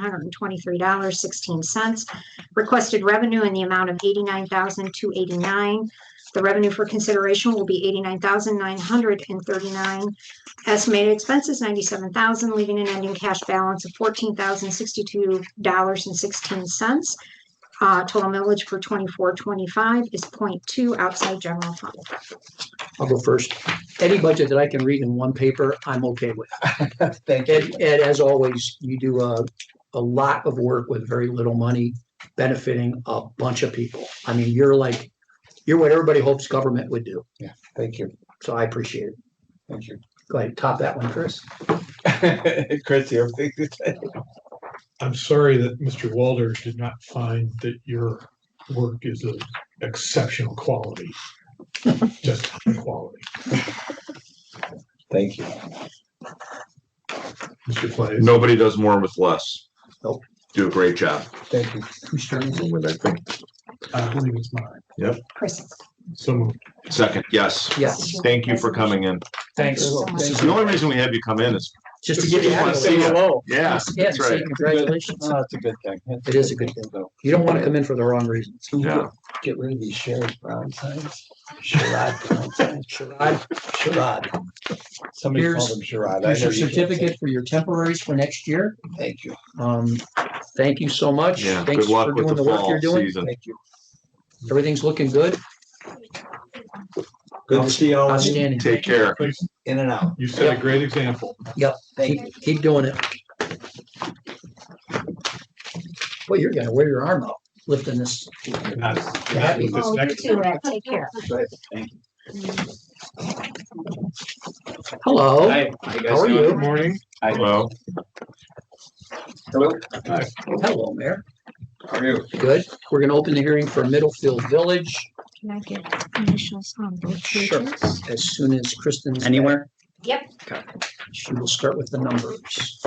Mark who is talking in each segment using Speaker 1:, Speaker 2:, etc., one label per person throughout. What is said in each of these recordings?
Speaker 1: hundred and twenty-three dollars, sixteen cents. Requested revenue in the amount of eighty-nine thousand, two eighty-nine. The revenue for consideration will be eighty-nine thousand, nine hundred and thirty-nine. Estimated expenses, ninety-seven thousand, leaving an ending cash balance of fourteen thousand, sixty-two dollars and sixteen cents. Uh, total millage for twenty-four, twenty-five is 0.2 outside general fund.
Speaker 2: I'll go first. Any budget that I can read in one paper, I'm okay with.
Speaker 3: Thank you.
Speaker 2: And, and as always, you do a, a lot of work with very little money, benefiting a bunch of people. I mean, you're like, you're what everybody hopes government would do.
Speaker 3: Thank you.
Speaker 2: So I appreciate it.
Speaker 3: Thank you.
Speaker 2: Go ahead, top that one, Chris.
Speaker 3: Chris, you have things to say?
Speaker 4: I'm sorry that Mr. Walder did not find that your work is of exceptional quality. Just high quality,
Speaker 3: Thank you.
Speaker 4: Mr. Clay.
Speaker 5: Nobody does more with less.
Speaker 2: Nope.
Speaker 5: Do a great job.
Speaker 3: Thank you.
Speaker 2: Commissioner Lindsey?
Speaker 5: With that thing.
Speaker 4: I believe it's mine.
Speaker 1: Chris.
Speaker 4: So moved.
Speaker 5: Second, yes.
Speaker 2: Yes,
Speaker 5: Thank you for coming in.
Speaker 2: thanks.
Speaker 1: so much.
Speaker 2: Thank
Speaker 5: The
Speaker 2: you.
Speaker 5: only reason we have you come in is,
Speaker 2: Just to give you.
Speaker 5: Just wanna
Speaker 2: a-
Speaker 5: say
Speaker 2: hello.
Speaker 5: yeah,
Speaker 2: Yeah,
Speaker 5: that's
Speaker 2: say
Speaker 5: right.
Speaker 2: congratulations.
Speaker 3: No, Oh, That's a good thing.
Speaker 2: It is a good thing. You don't want to come in for the wrong reasons.
Speaker 5: Yeah.
Speaker 3: Get rid of these Sherrod Brown signs. Sherrod Brown signs.
Speaker 2: Sherrod,
Speaker 3: Sherrod. Somebody
Speaker 2: Here's-
Speaker 3: called him Sherrod. I
Speaker 2: here's
Speaker 3: know
Speaker 2: your
Speaker 3: you can't say-
Speaker 2: certificate for your temporaries for next year.
Speaker 3: Thank you.
Speaker 2: Um, thank you so much.
Speaker 5: Yeah,
Speaker 2: Thanks
Speaker 5: good
Speaker 2: for
Speaker 5: luck with
Speaker 2: doing
Speaker 5: the
Speaker 2: the work you're
Speaker 5: fall
Speaker 2: doing.
Speaker 5: season.
Speaker 3: Thank you.
Speaker 2: Everything's looking good.
Speaker 3: Good to see you all in
Speaker 2: Outstanding.
Speaker 5: Take care.
Speaker 3: and out.
Speaker 4: You set a great example.
Speaker 3: Thank you.
Speaker 2: Keep, keep doing it. Well, you're gonna wear your arm out lifting this.
Speaker 4: Happy with this
Speaker 1: Oh, you
Speaker 4: next
Speaker 1: too, Ed. Take care.
Speaker 2: Hello.
Speaker 6: Hi, how you guys
Speaker 2: How are
Speaker 6: doing?
Speaker 2: you?
Speaker 4: Good morning.
Speaker 6: Hi.
Speaker 5: Hello.
Speaker 6: Hello. Hi,
Speaker 2: Hello, Mayor.
Speaker 6: how are you?
Speaker 2: Good. We're gonna open the hearing for Middlefield Village
Speaker 1: Can I get initials on both
Speaker 2: Sure.
Speaker 1: pages?
Speaker 2: as soon as Kristen's.
Speaker 6: Anywhere?
Speaker 1: Yep.
Speaker 2: She will start with the numbers.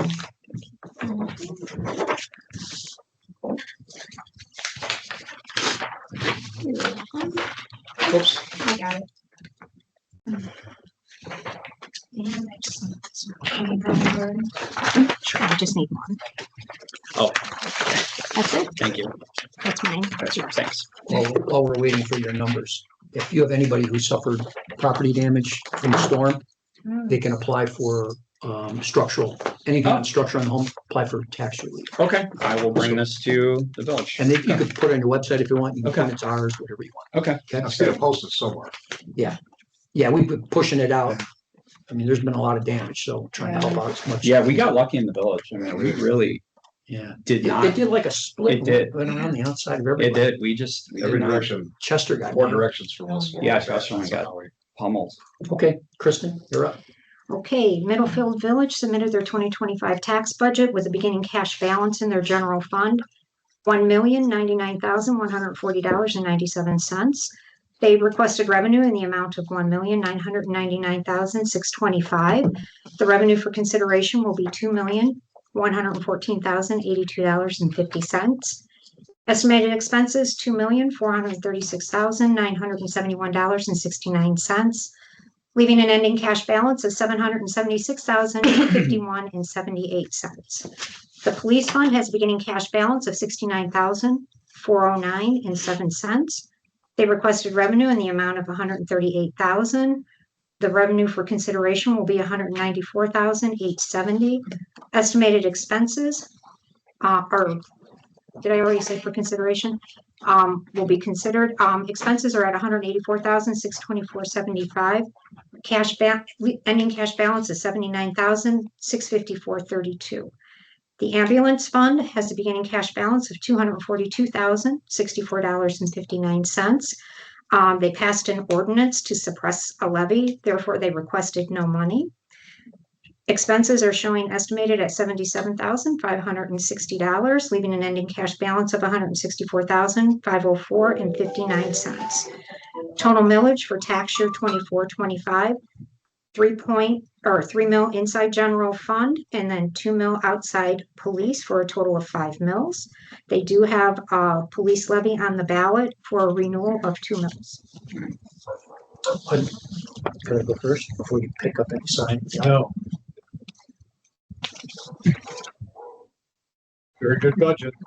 Speaker 2: Oops.
Speaker 1: I got it. And I just want this one. Sure, I just need one.
Speaker 6: Oh.
Speaker 1: That's it,
Speaker 6: Thank you.
Speaker 1: that's mine. That's yours.
Speaker 6: Thanks.
Speaker 2: While, while we're waiting for your numbers, if you have anybody who suffered property damage from the storm, they can apply for um, structural, anything
Speaker 6: Oh.
Speaker 2: on structure on the home, apply for tax relief.
Speaker 6: Okay, I will bring this to the village.
Speaker 2: And they, you could put it on your website if you want, you can put
Speaker 6: Okay.
Speaker 2: it's ours, whatever you want.
Speaker 6: Okay,
Speaker 2: Okay?
Speaker 7: gotta post it somewhere.
Speaker 2: Yeah, we've been pushing it out. I mean, there's been a lot of damage, so trying to help out as much.
Speaker 6: yeah, we got lucky in the village. I mean, we really
Speaker 2: Yeah.
Speaker 6: did
Speaker 2: It it
Speaker 6: not.
Speaker 2: did like a split.
Speaker 6: It did.
Speaker 2: Went around the outside of
Speaker 6: It
Speaker 2: everybody.
Speaker 6: did. We just, we
Speaker 7: Every
Speaker 6: did not
Speaker 7: direction,
Speaker 2: Chester got
Speaker 7: four
Speaker 2: it.
Speaker 7: directions from us.
Speaker 6: Yeah, so that's what I got. pummel.
Speaker 2: Okay, Kristen, you're up.
Speaker 1: Okay, Middlefield Village submitted their twenty twenty-five tax budget with a beginning cash balance in their general fund. One million ninety-nine thousand one hundred forty dollars and ninety-seven cents. They requested revenue in the amount of one million nine hundred ninety-nine thousand six twenty-five. The revenue for consideration will be two million one hundred fourteen thousand eighty-two dollars and fifty cents. Estimated expenses, two million four hundred thirty-six thousand nine hundred seventy-one dollars and sixty-nine cents leaving an ending cash balance of seven hundred and seventy-six thousand fifty-one and seventy-eight cents. The police fund has a beginning cash balance of sixty-nine thousand four hundred nine and seven cents. They requested revenue in the amount of one hundred and thirty-eight thousand. The revenue for consideration will be one hundred and ninety-four thousand eight seventy. Estimated expenses uh, or did I already say for consideration? Um, will be considered. Um, expenses are at 184,624.75. Cash back, ending cash balance is seventy-nine thousand, six fifty-four, thirty-two. The ambulance fund has a beginning cash balance of two hundred and forty-two thousand, sixty-four dollars and fifty-nine cents. Um, they passed an ordinance to suppress a levy, therefore they requested no money. Expenses are showing estimated at seventy-seven thousand, five hundred and sixty dollars, leaving an ending cash balance of 164,504 hundred and sixty-four thousand, five oh four and fifty-nine cents. Total millage for tax year twenty-four, twenty-five, three point, or three mil inside general fund and then two mil outside police for a total of five mils. They do have a police levy on the ballot for a renewal of two mils.
Speaker 2: Can I go first before you pick up any sign?
Speaker 4: No. very good budget.